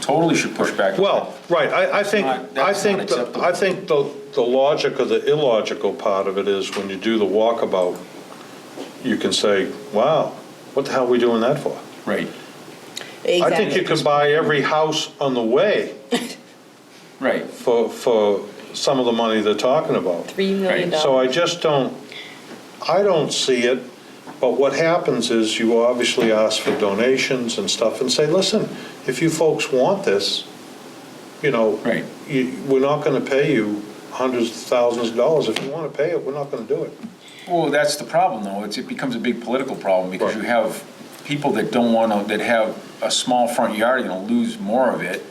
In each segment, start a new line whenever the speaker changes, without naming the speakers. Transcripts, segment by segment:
totally should push back.
Well, right, I, I think,
Not-
I
that's
think,
not
the-
acceptable.
I think the, the logic or the illogical part of it is when you do the walkabout, you can say, wow, what the hell are we doing that for?
Right,
I think you could buy every house on the way
right.
for, for some of the money they're talking about.
Three million
Right,
So
dollars.
I just don't, I don't see it, but what happens is you obviously ask for donations and stuff and say, listen, if you folks want this, you know,
Right.
you- we're not going to pay you hundreds of thousands of dollars. If you want to pay it, we're not going to do it.
Well, that's the problem, though. It's, it becomes a big political problem because you
Right.
have people that don't want to, that have a small front yard, you know, lose more of it.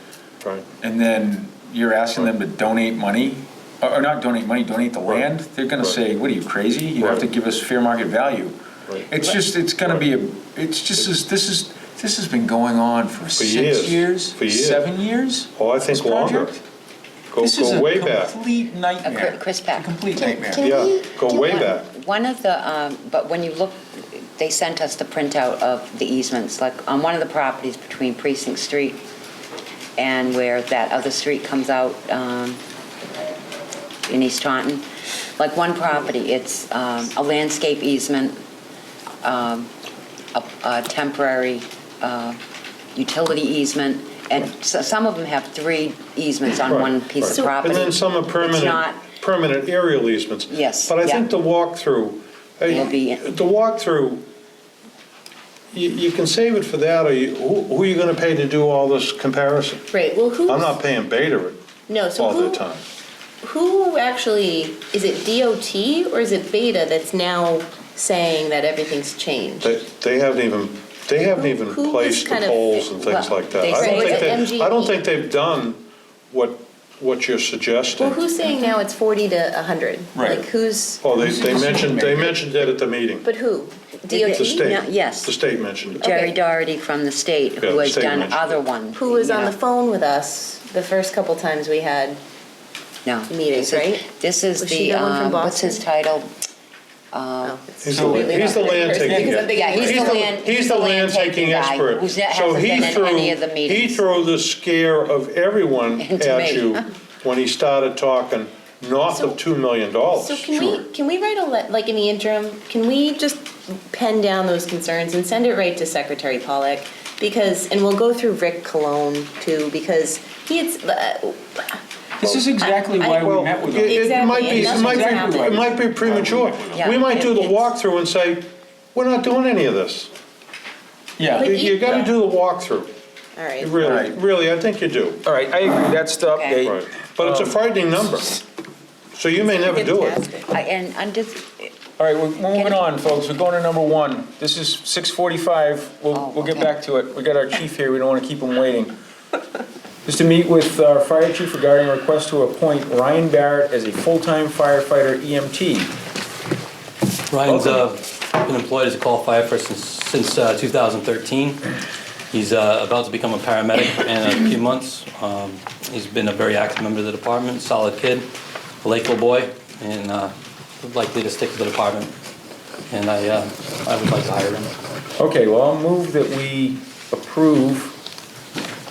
Right.
And then you're asking them to donate money, or or not donate money, donate the
Right.
land? They're going to
Right.
say, what are you, crazy? You have to
Right.
give us fair market value.
Right.
It's just, it's going to be, a. it's just, is- this is, this has been going on for six
years.
years?
For years.
Seven years?
Oh, I think
This
longer.
project?
Go,
This is
go way
a
back.
complete nightmare.
Uh, Chris
It's a
Pack.
Complete
Can-
nightmare.
can
Yeah,
we
go
do
way
one-
back.
One of the, um, but when you look, they sent us the printout of the easements, like on one of the properties between Precinct Street and where that other street comes out um, in East Taunton. Like one property, it's um, a landscape easement, um, a a temporary uh, utility easement, and so- some of them have three easements on
Right,
one piece
right.
of property.
And then some are
It's
permanent,
not-
permanent aerial easements.
Yes,
But I
yeah.
think the walkthrough,
It'll be-
eh, the walkthrough, you, you can save it for that, or you, who, who are you gonna pay to do all this comparison?
Right, well, who's?
I'm not paying Beta it
No, so
all the
who,
time.
who actually, is it DOT or is it Beta that's now saying that everything's changed?
They, they haven't even, they haven't even
Who- who
placed
is
the
kind of-
poles and things
well,
like that.
they
I
say
don't think
it's
they, I don't
MGE.
think they've done what, what you're
Well,
suggesting.
who's saying now it's 40 to 100?
Right.
Like, who's,
Oh, they, they mentioned, they mentioned that at the meeting,
but who?
the
DOT?
state.
No, yes.
The state mentioned it.
Jerry
Okay.
Doherty from the state,
Yeah,
who
the
has
state
done
mentioned
other
it.
ones.
Who was
you
on
know.
the phone with us the first couple times we had?
No.
meetings,
this is-
right?
This is
Was she
the,
the one from
um, what's his
Boston?
title?
Oh, it's
He's the-
completely
he's the
not
land
person,
taking
because I'm
guy.
thinking
Yeah, he's
of-
the land-
He's the land taking
guy
expert.
who's not-
So
hasn't
he
been at
threw-
any of the
He
meetings.
threw the scare of everyone
Into
at
me.
you when he started talking north of $2 million.
So can we, can we write a, le- like in the interim, can we just pen down those concerns and send it right to Secretary Pollock? Because, and we'll go through Rick Cologne too, because he had, uh,
This is exactly why we
Well,
met with
it-
them.
It might be,
Exactly,
it
and
might
that's what
be, it
happened.
might be premature.
Yeah.
We might do the
It's-
walkthrough and say, we're not doing any of this. You-
Yeah.
But-
You gotta
Yeah.
do the walkthrough.
all right.
Really,
Right.
really, I think you do.
All right, I agree, that's the
Okay.
update.
But
Um,
it's a frightening number. So you may never do it.
I- And I'm just,
All right, we're moving on, folks, we're going to number one. This is 6:45,
Oh,
we'll, we'll get
okay.
back to it. We got our chief here, we don't want to keep him waiting. Just to meet with our fire chief regarding a request to appoint Ryan Barrett as a full-time firefighter E EMT.
Ryan's uh, been employed as a call firefighter since, since uh, 2013. He's uh, about to become a paramedic in a few months. Um, He's been a very active member of the department, solid kid, a Lakeville boy, and uh, likely to stick to the department. And I, uh, I would like to hire him.
Okay, well, I'll move that we approve,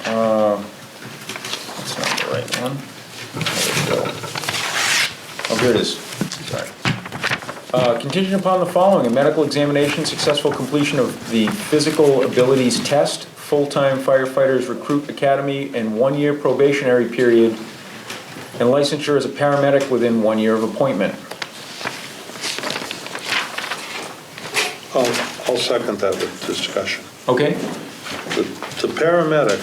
um, that's not the right one. There we go. Oh, here it is, sorry. Uh, Contingent upon the following, a medical examination, successful completion of the physical abilities test, full-time firefighters recruit academy, and one-year probationary period, and licensure as a paramedic within one year of appointment.
I'll, I'll second that with discussion.
Okay?
The the paramedic,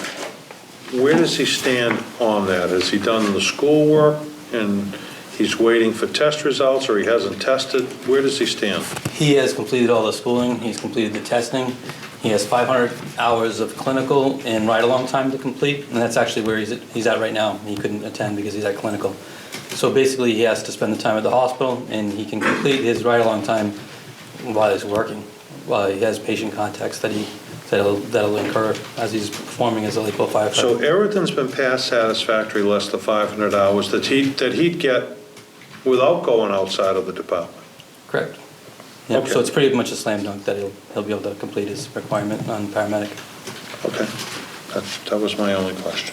where does he stand on that? Has he done the schoolwork and he's waiting for test results or he hasn't tested? Where does he stand?
He has completed all the schooling, he's completed the testing, he has 500 hours of clinical and ride-along time to complete, and that's actually where he's, at- he's at right now. He couldn't attend because he's at clinical. So basically, he has to spend the time at the hospital, and he can complete his ride-along time while he's working, while he has patient contacts that he, that'll, that'll incur as he's performing as a Lakeville
So
firefighter.
everything's been past satisfactory, less the 500 hours that he, that he'd get without going outside of the department.
Correct. Yep,
Okay.
so it's pretty much a slam dunk that he'll, he'll be able to complete his requirement on paramedic.
Okay, that, that was my only question.